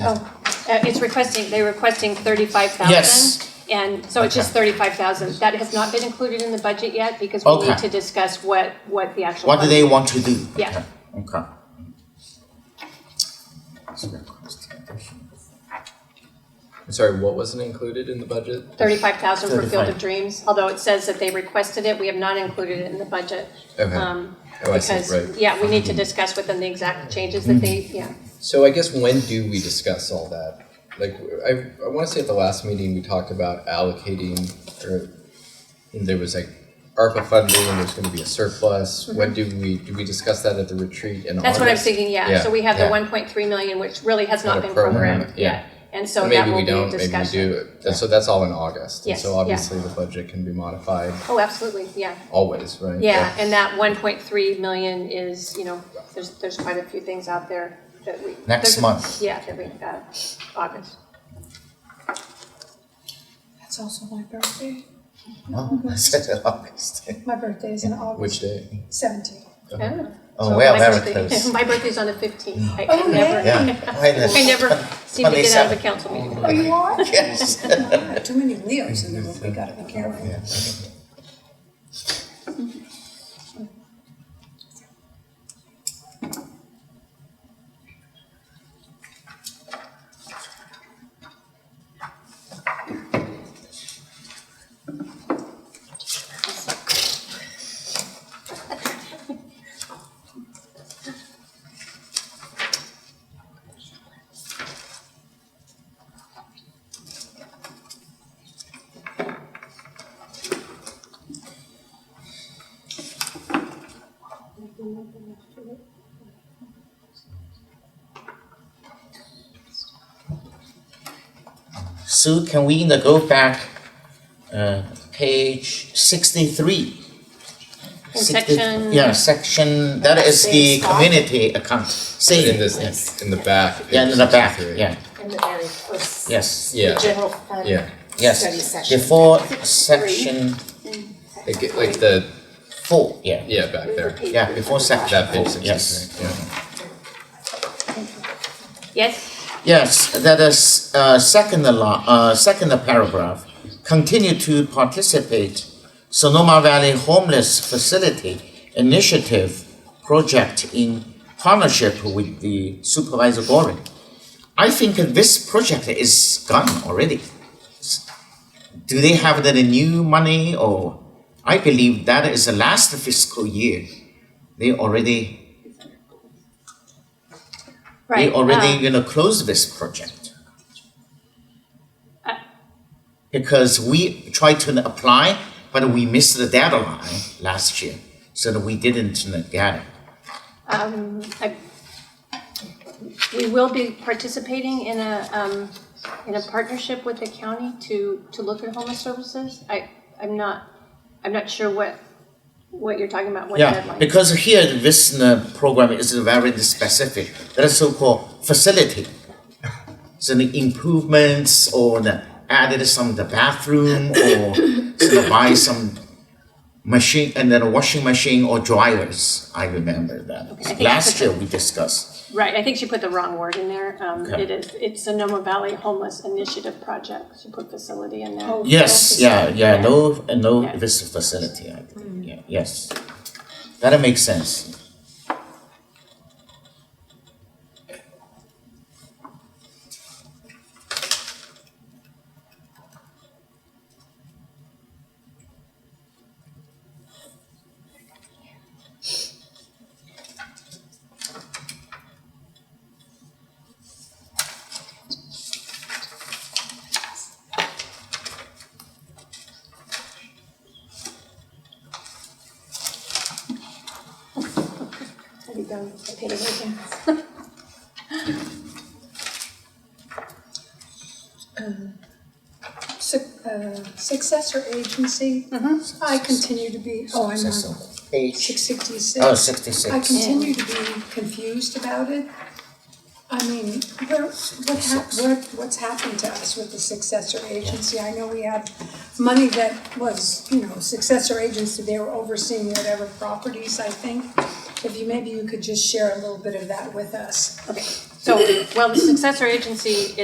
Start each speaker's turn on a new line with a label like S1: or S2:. S1: Oh, uh, it's requesting, they're requesting thirty-five thousand.
S2: Yes.
S1: And so it's just thirty-five thousand. That has not been included in the budget yet because we need
S2: Okay.
S1: to discuss what, what the actual.
S2: What do they want to do?
S1: Yeah.
S2: Okay.
S3: I'm sorry, what wasn't included in the budget?
S1: Thirty-five thousand for Field of
S2: 35.
S1: Dreams, although it says that they requested it, we have not included it in the budget.
S3: Okay.
S1: Um,
S3: Oh, I see, right. Mm-hmm.
S1: Because, yeah, we need to discuss with them the exact changes that they, yeah.
S3: So I guess when do we discuss all that? Like, I, I wanna say at the last meeting, we talked about allocating, or there was like ARPA funding, there's gonna be a surplus. When do we, do we discuss that at the retreat in August?
S1: Mm-hmm. That's what I'm thinking, yeah.
S3: Yeah,
S1: So we have the
S3: yeah.
S1: one point three million, which really has
S3: Not
S1: not
S3: a
S1: been
S3: program,
S1: programmed
S3: yeah.
S1: yet. And so that
S3: Maybe
S1: will
S3: we
S1: be a
S3: don't, maybe we
S1: discussion.
S3: do, And so that's all in August, and
S1: Yes,
S3: so
S1: yeah.
S3: obviously the budget can be modified
S1: Oh, absolutely, yeah.
S3: always, right?
S1: Yeah, and that one point three million is, you know, there's, there's quite a few things out there that we.
S2: Next
S1: there's-
S2: month.
S1: Yeah, that we, uh, August.
S4: That's also my birthday.
S2: No, I said August.
S4: My birthday is in August
S3: Which day?
S4: 17th.
S1: Oh.
S2: Oh,
S1: So
S2: well,
S1: my
S2: very
S1: birthday-
S2: close. Mm.
S1: My birthy's on the fifteenth. I
S4: Oh,
S1: I never,
S2: Yeah. Why the-
S1: I never seem to get out of a council meeting.
S4: Oh, you are?
S2: Yes.
S4: God, Too many Leos in the room. We gotta be careful.
S2: Yeah. Sue, can we now go back, uh, page sixty-three?
S1: In
S2: 60
S1: section-
S2: Yeah, section, that is the
S1: Savings.
S2: community account,
S3: In
S2: savings.
S3: this, in the back.
S2: Yeah, in the back,
S3: 63.
S2: yeah,
S5: in the very first.
S2: yes,
S3: Yeah.
S5: The general fund.
S3: Yeah.
S5: Study
S2: yes.
S5: session.
S2: Before section
S3: Like, like the,
S2: four, yeah,
S3: yeah, back there.
S2: yeah, before section
S3: That
S2: four,
S3: page
S2: yes.
S3: sixty-three, yeah.
S1: Yes,
S2: Yes, that is, uh, second la- uh, second paragraph, continue to participate Sonoma Valley Homeless Facility Initiative project in partnership with the Supervisor Gorin. I think that this project is gone already. Do they have the new money or, I believe that is the last fiscal year. They already
S1: right.
S2: we already
S1: um,
S2: gonna close this project.
S1: Uh,
S2: Because we tried to apply, but we missed the deadline last year, so that we didn't get it.
S1: Um, I- we will be participating in a, um, in a partnership with the county to, to look at homeless services. I, I'm not, I'm not sure what, what you're talking about, what
S2: Yeah,
S1: deadline.
S2: because here this uh, program is very specific, that is so-called facility. So the improvements or the added some the bathroom or so they buy some machine and then a washing machine or dryers, I remember
S1: I think
S2: that.
S1: I
S2: Last
S1: put
S2: year we discussed,
S1: Right, I think she put the wrong word in there. Um,
S2: Okay.
S1: it is, it's Sonoma Valley Homeless Initiative Project. She put facility in there.
S4: Oh,
S2: yes,
S4: well,
S2: yeah, yeah, no, uh, no,
S1: Yeah. Mm.
S2: this facility, I think, yeah, yes. That makes sense.
S1: Uh-huh. There you go. Okay, there you go.
S4: su- uh, Successor agency. I continue to be, oh, I'm
S2: Mm-hmm. Successor.
S4: on
S2: Page,
S4: 666.
S2: oh, sixty-six.
S4: I continue to be confused about it. I mean, where, what hap, what, what's happened to us with the successor agency? I know we have money that was, you know, successor agency, they were overseeing whatever properties, I think. if you, maybe you could just share a little bit of that with us.
S1: Okay, so, well, the successor agency